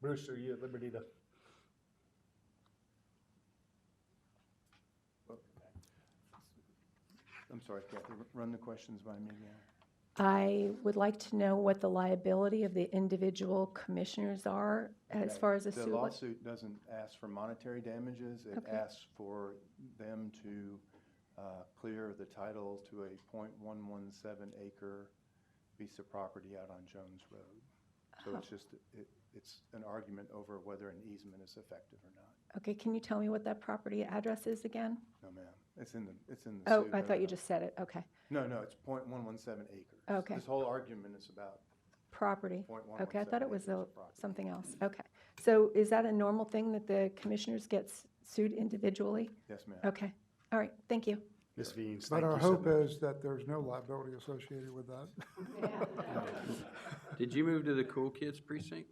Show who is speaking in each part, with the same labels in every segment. Speaker 1: Bruce, are you at liberty to?
Speaker 2: I'm sorry, Kathy, run the questions by me again.
Speaker 3: I would like to know what the liability of the individual commissioners are as
Speaker 2: Okay.
Speaker 3: far as a
Speaker 2: The
Speaker 3: suit. wa-
Speaker 2: lawsuit doesn't ask for monetary damages. It
Speaker 3: Okay.
Speaker 2: asks for them to uh, clear the title to a .117 acre piece of property out on Jones Road. So it's just, it- it's an argument over whether an easement is effective or not.
Speaker 3: Okay, can you tell me what that property address is again?
Speaker 2: No, ma'am. It's in the, it's in the
Speaker 3: Oh,
Speaker 2: suit.
Speaker 3: I
Speaker 2: No,
Speaker 3: thought
Speaker 2: no,
Speaker 3: you
Speaker 2: no.
Speaker 3: just said it. Okay.
Speaker 2: No, no, it's .117 acres.
Speaker 3: Okay.
Speaker 2: This whole argument is about
Speaker 3: Property.
Speaker 2: .117
Speaker 3: Okay, I thought it
Speaker 2: acres
Speaker 3: was a,
Speaker 2: of property.
Speaker 3: something else. Okay. So is that a normal thing that the commissioners get s- sued individually?
Speaker 2: Yes, ma'am.
Speaker 3: Okay. All right, thank you.
Speaker 1: Ms. Veens,
Speaker 4: But
Speaker 1: thank
Speaker 4: our
Speaker 1: you so
Speaker 4: hope
Speaker 1: much.
Speaker 4: is that there's no liability associated with that.
Speaker 5: Did you move to the cool kids precinct?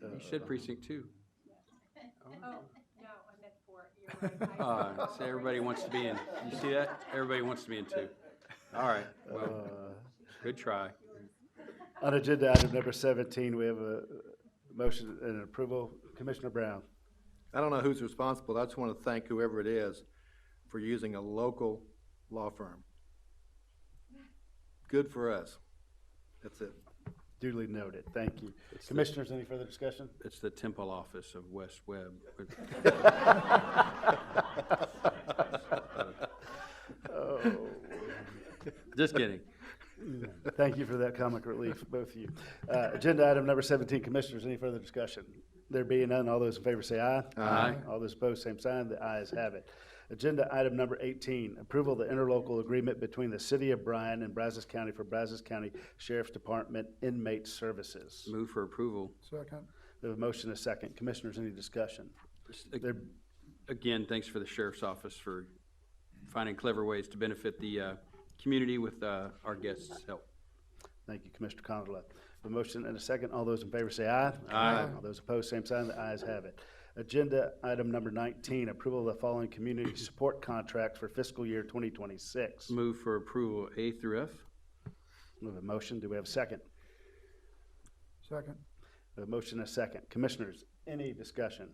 Speaker 5: You said precinct two.
Speaker 6: Oh, No, I meant for, you're right. I-
Speaker 5: Uh, so everybody wants to be in, you see that? Everybody wants to be in two. All right, well,
Speaker 1: Uh,
Speaker 5: good try.
Speaker 1: On agenda item number seventeen, we have a a motion and approval. Commissioner Brown.
Speaker 7: I don't know who's responsible, I just want to thank whoever it is for using a local law firm. Good for us. That's it.
Speaker 1: Duly noted. Thank you. Commissioners, any further discussion?
Speaker 5: It's the temple office of West Webb.
Speaker 1: Oh.
Speaker 5: Just kidding.
Speaker 1: Thank you for that comic relief, both of you. Uh, Agenda item number 17, Commissioners, any further discussion? There being none, all those in favor say aye.
Speaker 5: Aye.
Speaker 1: All those opposed, same sign. The ayes have it. Agenda item number 18, approval of the interlocal agreement between the City of Bryan and Brazos County for Brazos County Sheriff's Department Inmate Services.
Speaker 5: Move for approval.
Speaker 4: Second,
Speaker 1: We have a motion and a second. Commissioners, any discussion? There,
Speaker 5: Again, thanks for the sheriff's office for finding clever ways to benefit the, uh, community with, uh, our guests' help.
Speaker 1: thank you, Commissioner Condola. A motion and a second. All those in favor say aye.
Speaker 5: Aye.
Speaker 1: All those opposed, same sign. The ayes have it. Agenda item number 19, approval of the following community support contracts for fiscal year 2026.
Speaker 5: Move for approval A through F.
Speaker 1: We have a motion. Do we have a second?
Speaker 4: second,
Speaker 1: We have a motion and a second. Commissioners, any discussion?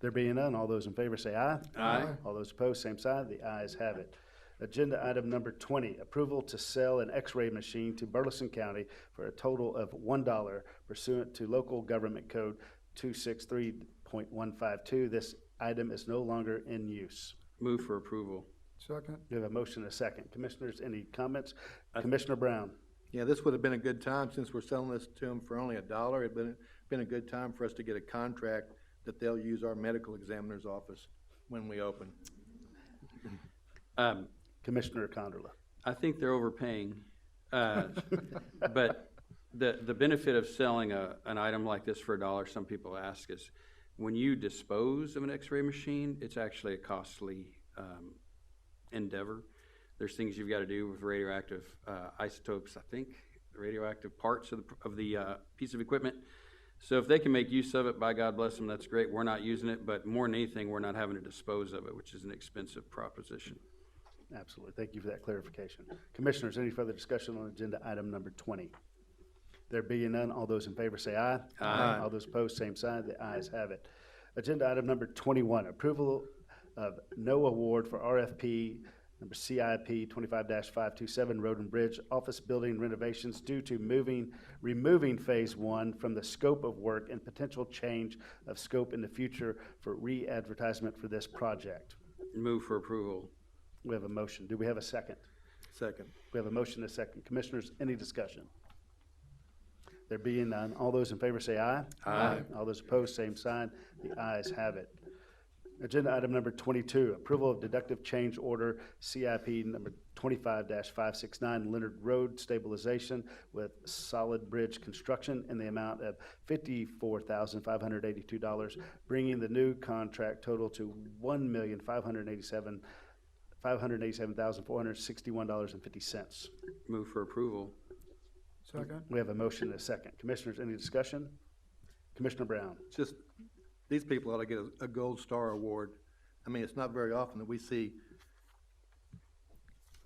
Speaker 1: There being none, all those in favor say aye.
Speaker 5: Aye.
Speaker 1: All those opposed, same side. The ayes have it. Agenda item number twenty, approval to sell an X-ray machine to Burleson County for a total of one dollar pursuant to local government code two six three point one five two. This item is no longer in use.
Speaker 5: Move for approval.
Speaker 4: second,
Speaker 1: We have a motion and a second. Commissioners, any comments? Commissioner Brown?
Speaker 7: Yeah, this would have been a good time, since we're selling this to them for only a dollar, it'd been, been a good time for us to get a contract that they'll use our medical examiner's office when we open.
Speaker 5: Um,
Speaker 1: Commissioner Condola?
Speaker 5: I think they're overpaying. uh, But the, the benefit of selling a, an item like this for a dollar, some people ask, is when you dispose of an x-ray machine, it's actually a costly um, endeavor. There's things you've got to do with radioactive uh, isotopes, I think, radioactive parts of the, of the uh, piece of equipment. So if they can make use of it, by God bless them, that's great. We're not using it, but more than anything, we're not having to dispose of it, which is an expensive proposition.
Speaker 1: Absolutely. Thank you for that clarification. Commissioners, any further discussion on agenda item number twenty? There being none, all those in favor say aye.
Speaker 5: Aye.
Speaker 1: All those opposed, same sign. The ayes have it. Agenda item number twenty-one, approval of no award for RFP number CIP twenty-five five-two-seven Road and Bridge Office Building renovations due to moving, removing Phase One from the scope of work and potential change of scope in the future for re-advertisement for this project.
Speaker 5: Move for approval.
Speaker 1: We have a motion. Do we have a second?
Speaker 7: Second.
Speaker 1: We have a motion and a second. Commissioners, any discussion? There being none, all those in favor say aye. Aye. All those opposed, same sign. The ayes have it. Agenda item number twenty-two, approval of deductive change order CIP number twenty-five five six nine Leonard Road stabilization with solid bridge construction in the amount of fifty-four thousand five hundred eighty-two dollars, bringing the new contract total to one million five hundred eighty-seven, five hundred eighty-seven thousand four hundred sixty-one dollars and fifty cents.
Speaker 5: Move for approval.
Speaker 4: second,
Speaker 1: We have a motion and a second. Commissioners, any discussion? Commissioner Brown?
Speaker 7: It's just, these people ought to get a, a gold star award. I mean, it's not very often that we see